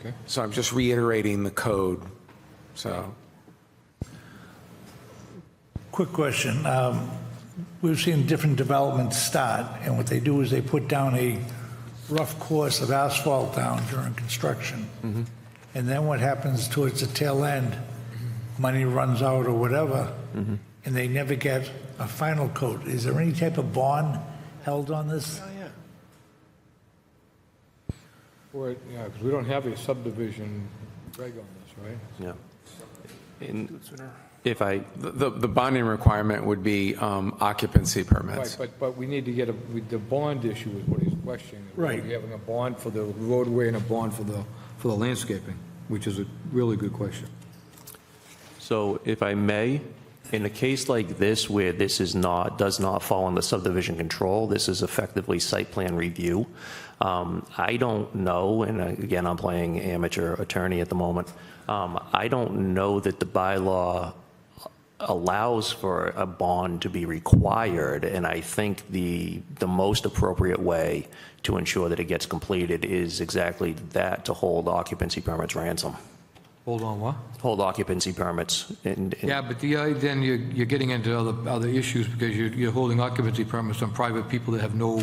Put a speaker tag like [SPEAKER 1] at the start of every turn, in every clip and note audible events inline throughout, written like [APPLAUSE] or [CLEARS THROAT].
[SPEAKER 1] Okay.
[SPEAKER 2] So I'm just reiterating the code, so.
[SPEAKER 3] Quick question. Um, We've seen different developments start, and what they do is they put down a rough course of asphalt down during construction. And then what happens towards the tail end, money runs out or whatever, and they never get a final coat. Is there any type of bond held on this?
[SPEAKER 1] Or, yeah, because we don't have a subdivision reg on this, right?
[SPEAKER 4] Yeah. And if I,
[SPEAKER 2] The, the bonding requirement would be um, occupancy
[SPEAKER 1] Right,
[SPEAKER 2] permits.
[SPEAKER 1] but, but we need to get a, with the bond issue is what he's questioning.
[SPEAKER 3] Right.
[SPEAKER 1] We having a bond for the roadway and a bond for the, for the landscaping, which is a really good question.
[SPEAKER 4] so if I may, in a case like this where this is not, does not fall under subdivision control, this is effectively site plan review. um, I don't know, and again, I'm playing amateur attorney at the moment. um, I don't know that the bylaw allows for a bond to be required, and I think the, the most appropriate way to ensure that it gets completed is exactly that, to hold occupancy permits ransom.
[SPEAKER 1] Hold on, what?
[SPEAKER 4] hold occupancy permits and, and-
[SPEAKER 1] Yeah, but the, uh, then you're, you're getting into other, other issues because you're, you're holding occupancy permits on private people that have no,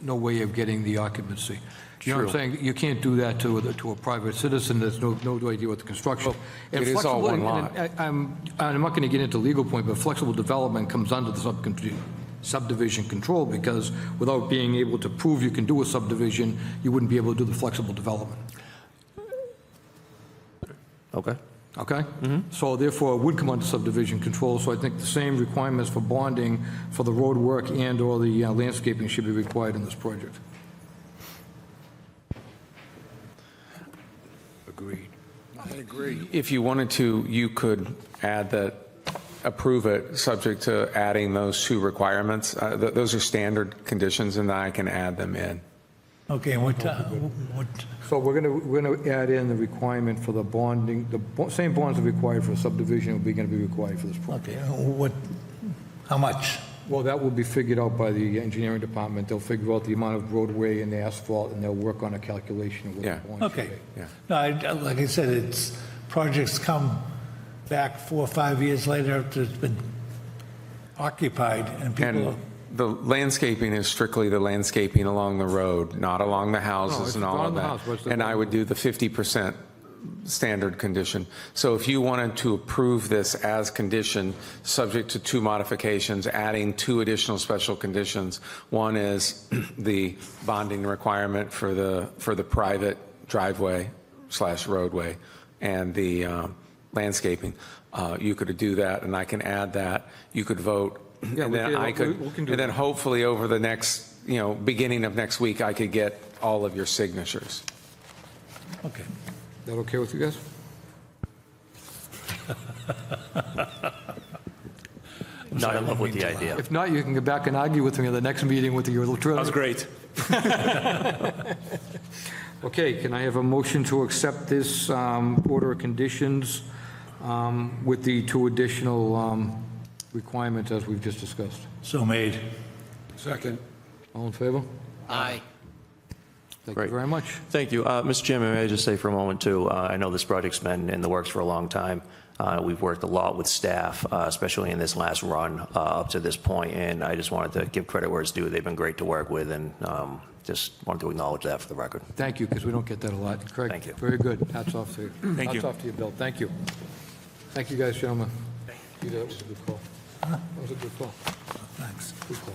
[SPEAKER 1] no way of getting the occupancy. You know what I'm
[SPEAKER 4] True.
[SPEAKER 1] saying? You can't do that to, a- to a private citizen that's no, no idea what the construction. and
[SPEAKER 2] it is all
[SPEAKER 1] flexible-
[SPEAKER 2] one
[SPEAKER 1] and-
[SPEAKER 2] lot.
[SPEAKER 1] and I- I'm, I'm not going to get into legal point, but flexible development comes under the subcon- subdivision control because without being able to prove you can do a subdivision, you wouldn't be able to do the flexible development.
[SPEAKER 4] okay.
[SPEAKER 1] Okay? Mm-hmm. So therefore, it would come under subdivision control, so I think the same requirements for bonding for the road work and/or the uh, landscaping should be required in this project. Agreed.
[SPEAKER 2] If you wanted to, you could add that, approve it, subject to adding those two requirements. Uh, th- Those are standard conditions, and I can add them in.
[SPEAKER 3] Okay, and what, uh, what,
[SPEAKER 1] So we're going to, we're going to add in the requirement for the bonding, the bo- same bonds are required for a subdivision will be going to be required for this project.
[SPEAKER 3] okay, what, how much?
[SPEAKER 1] Well, that will be figured out by the engineering department. They'll figure out the amount of roadway and the asphalt, and they'll work on a calculation of what
[SPEAKER 2] Yeah.
[SPEAKER 1] the bond should
[SPEAKER 3] Okay.
[SPEAKER 1] be.
[SPEAKER 2] Yeah.
[SPEAKER 3] No, I, I- like I said, it's, projects come back four or five years later after it's been occupied and people,
[SPEAKER 2] And the landscaping is strictly the landscaping along the road, not along the
[SPEAKER 1] No, it's
[SPEAKER 2] houses and all
[SPEAKER 1] along
[SPEAKER 2] of
[SPEAKER 1] the house, but it's
[SPEAKER 2] that.
[SPEAKER 1] the-
[SPEAKER 2] And I would do the 50% standard condition. So if you wanted to approve this as condition, subject to two modifications, adding two additional special conditions, one is [CLEARS THROAT] the bonding requirement for the, for the private driveway slash roadway and the um, landscaping, Uh, you could do that, and I can add that. You could vote, [CLEARS THROAT] and
[SPEAKER 1] we
[SPEAKER 2] then
[SPEAKER 1] can-
[SPEAKER 2] I could,
[SPEAKER 1] we- we can do
[SPEAKER 2] and then hopefully over the next, you know, beginning of next week, I could get all of your signatures.
[SPEAKER 3] okay.
[SPEAKER 1] That okay with you guys?
[SPEAKER 4] Not in love with the idea.
[SPEAKER 1] If not, you can go back and argue with me at the next meeting with your little trailer.
[SPEAKER 5] great.
[SPEAKER 1] [LAUGHS] Okay, can I have a motion to accept this um, order of conditions um, with the two additional um, requirements as we've just discussed?
[SPEAKER 3] So made.
[SPEAKER 1] Second. All in favor?
[SPEAKER 6] Aye.
[SPEAKER 1] Thank you
[SPEAKER 4] Great.
[SPEAKER 1] very much.
[SPEAKER 4] Thank you. Uh, Mr. Chairman, may I just say for a moment, too, uh, I know this project's been in the works for a long time. Uh, We've worked a lot with staff, uh, especially in this last run uh, up to this point, and I just wanted to give credit where it's due. They've been great to work with, and um, just wanted to acknowledge that for the record.
[SPEAKER 1] Thank you, because we don't get that a lot. Craig?
[SPEAKER 4] Thank you.
[SPEAKER 1] Very good. Hats off to you.
[SPEAKER 5] Thank you.
[SPEAKER 1] Hats off to you, Bill. Thank you. Thank you, guys, gentlemen. You did, it was a good call. That was a good call.
[SPEAKER 3] Thanks.
[SPEAKER 1] Good call.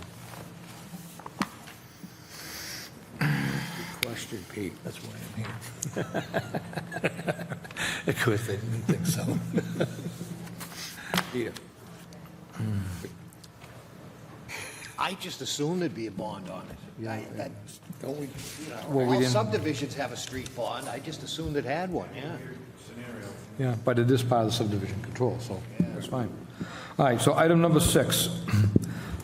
[SPEAKER 6] Question, Pete.
[SPEAKER 3] That's why I'm here. [LAUGHS] Of course, they didn't think so.
[SPEAKER 6] Peter. I just assumed there'd be a bond on it. I- that- Don't we, you
[SPEAKER 1] Well,
[SPEAKER 6] know,
[SPEAKER 1] we
[SPEAKER 6] all
[SPEAKER 1] didn't-
[SPEAKER 6] subdivisions have a street bond, I just assumed it had one, yeah.
[SPEAKER 1] Yeah, but it is part of the subdivision control, so that's fine. All right, so item number six. [CLEARS THROAT]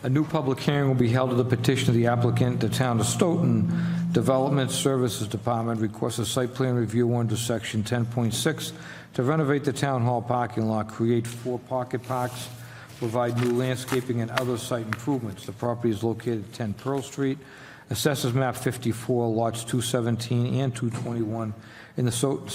[SPEAKER 1] A new public hearing will be held at the petition of the applicant, the town of Stoughton Development Services Department requests a site plan review under section 10.6 to renovate the town hall parking lot, create four pocket parks, provide new landscaping and other site improvements. The property is located at 10 Pearl Street. Assessors map 54, lots 217 and 221 in the so-